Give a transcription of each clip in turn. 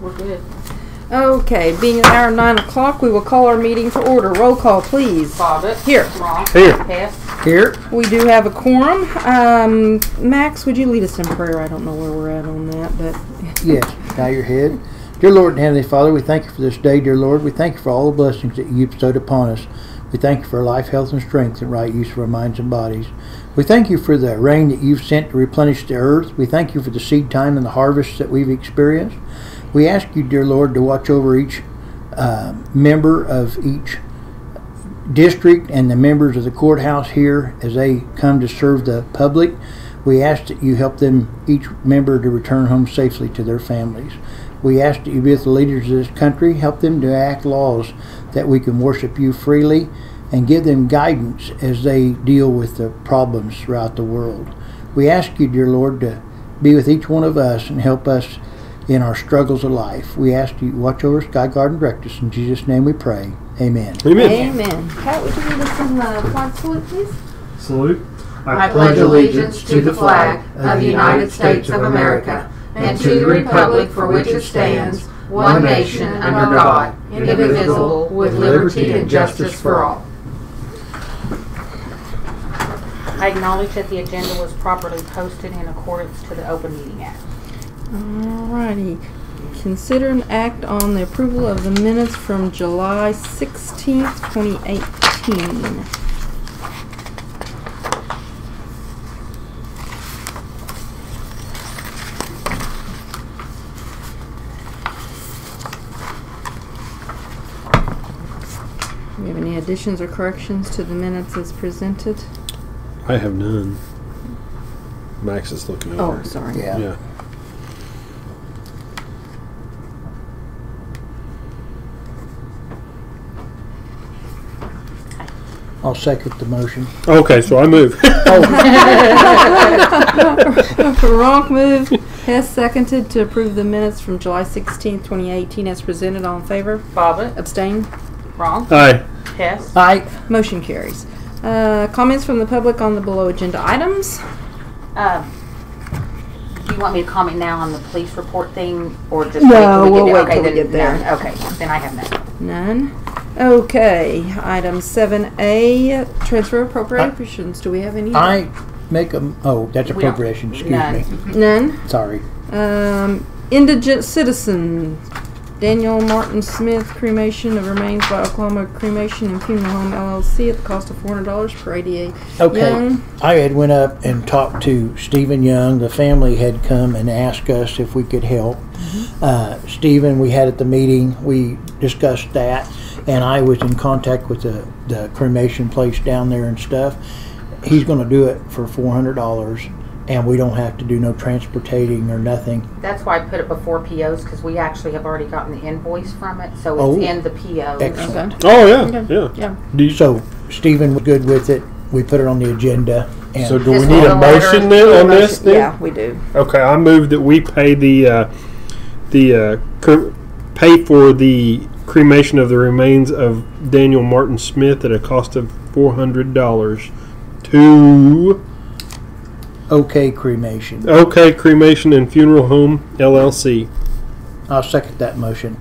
we're good. Okay, being an hour nine o'clock, we will call our meeting to order. Roll call, please. Bobbit. Here. Wrong. Here. Hess. Here. We do have a quorum. Um, Max, would you lead us in prayer? I don't know where we're at on that, but Yes. Bow your head. Dear Lord and Heavenly Father, we thank you for this day, dear Lord. We thank you for all the blessings that you bestowed upon us. We thank you for life, health, and strength, and right use of our minds and bodies. We thank you for the rain that you've sent to replenish the earth. We thank you for the seed time and the harvest that we've experienced. We ask you, dear Lord, to watch over each uh, member of each district and the members of the courthouse here as they come to serve the public. We ask that you help them, each member, to return home safely to their families. We ask that you be with the leaders of this country, help them to act laws that we can worship you freely, and give them guidance as they deal with the problems throughout the world. We ask you, dear Lord, to be with each one of us and help us in our struggles of life. We ask you, watch over us, guide, guard, and direct us. In Jesus' name we pray. Amen. amen. Pat, would you lead us in uh, the flag salute, please? Salute. I pledge allegiance to the flag of the United States of America and to the republic for which it stands, one nation under God, indivisible, with liberty and justice for all. I acknowledge that the agenda was properly posted in accordance to the Open Meeting Act. Alrighty. Consider an act on the approval of the minutes from July sixteenth, twenty eighteen. Do you have any additions or corrections to the minutes as presented? I have none. Max is looking Oh, over. sorry. Yeah. Yeah. I'll second the motion. Okay, so I move. Ronk moved, Hess seconded to approve the minutes from July sixteenth, twenty eighteen as presented. All in favor? Bobbit. Abstain? Wrong. Aye. Hess. Aye. Motion carries. Uh, comments from the public on the below agenda items? Um, do you want me to comment now on the police report thing, or just No, wait till we we'll get wait okay, till we then, get there. none. Okay, then I have none. None. Okay, item seven A, transfer appropriations. Do we have any? I make a, oh, that's We don't- appropriation, excuse none. me. None. Sorry. Um, indigent citizen, Daniel Martin Smith, cremation of remains by Oklahoma Cremation and Funeral Home LLC at the cost of four hundred dollars per ADA. Okay. Young. I had went up and talked to Stephen Young. The family had come and asked us if we could help. Uh, Stephen, we had at the meeting, we discussed that, and I was in contact with the, the cremation place down there and stuff. He's going to do it for four hundred dollars, and we don't have to do no transportating or nothing. That's why I put it before POs because we actually have already gotten the invoice from it, so Oh. it's in the POs. Excellent. Oh yeah. Yeah. Yeah. Do you, so So Stephen was good with it. We put it on the agenda, and so do we Just need need a a motion then on this? Then? Yeah, we do. Okay, I move that we pay the uh, the uh, cre- pay for the cremation of the remains of Daniel Martin Smith at a cost of four hundred dollars to okay cremation. OK Cremation and Funeral Home LLC. I'll second that motion.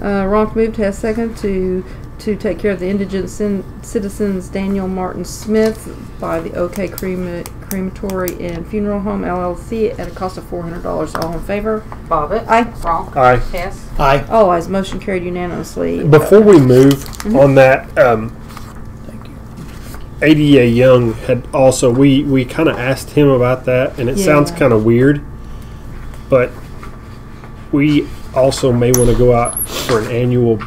Uh, Ronk moved, Hess second to to take care of the indigent cin- citizens Daniel Martin Smith by the OK Crema- Crematory and Funeral Home LLC at a cost of four hundred dollars. All in favor? Bobbit. Aye. Wrong. Aye. Hess. Aye. All ayes. Motion carried unanimously. Before we move on that, um, Mm-hmm. Thank you. ADA Young had also we we kind of asked him about that, and it sounds Yeah. kind of weird, but we also may want to go out for an annual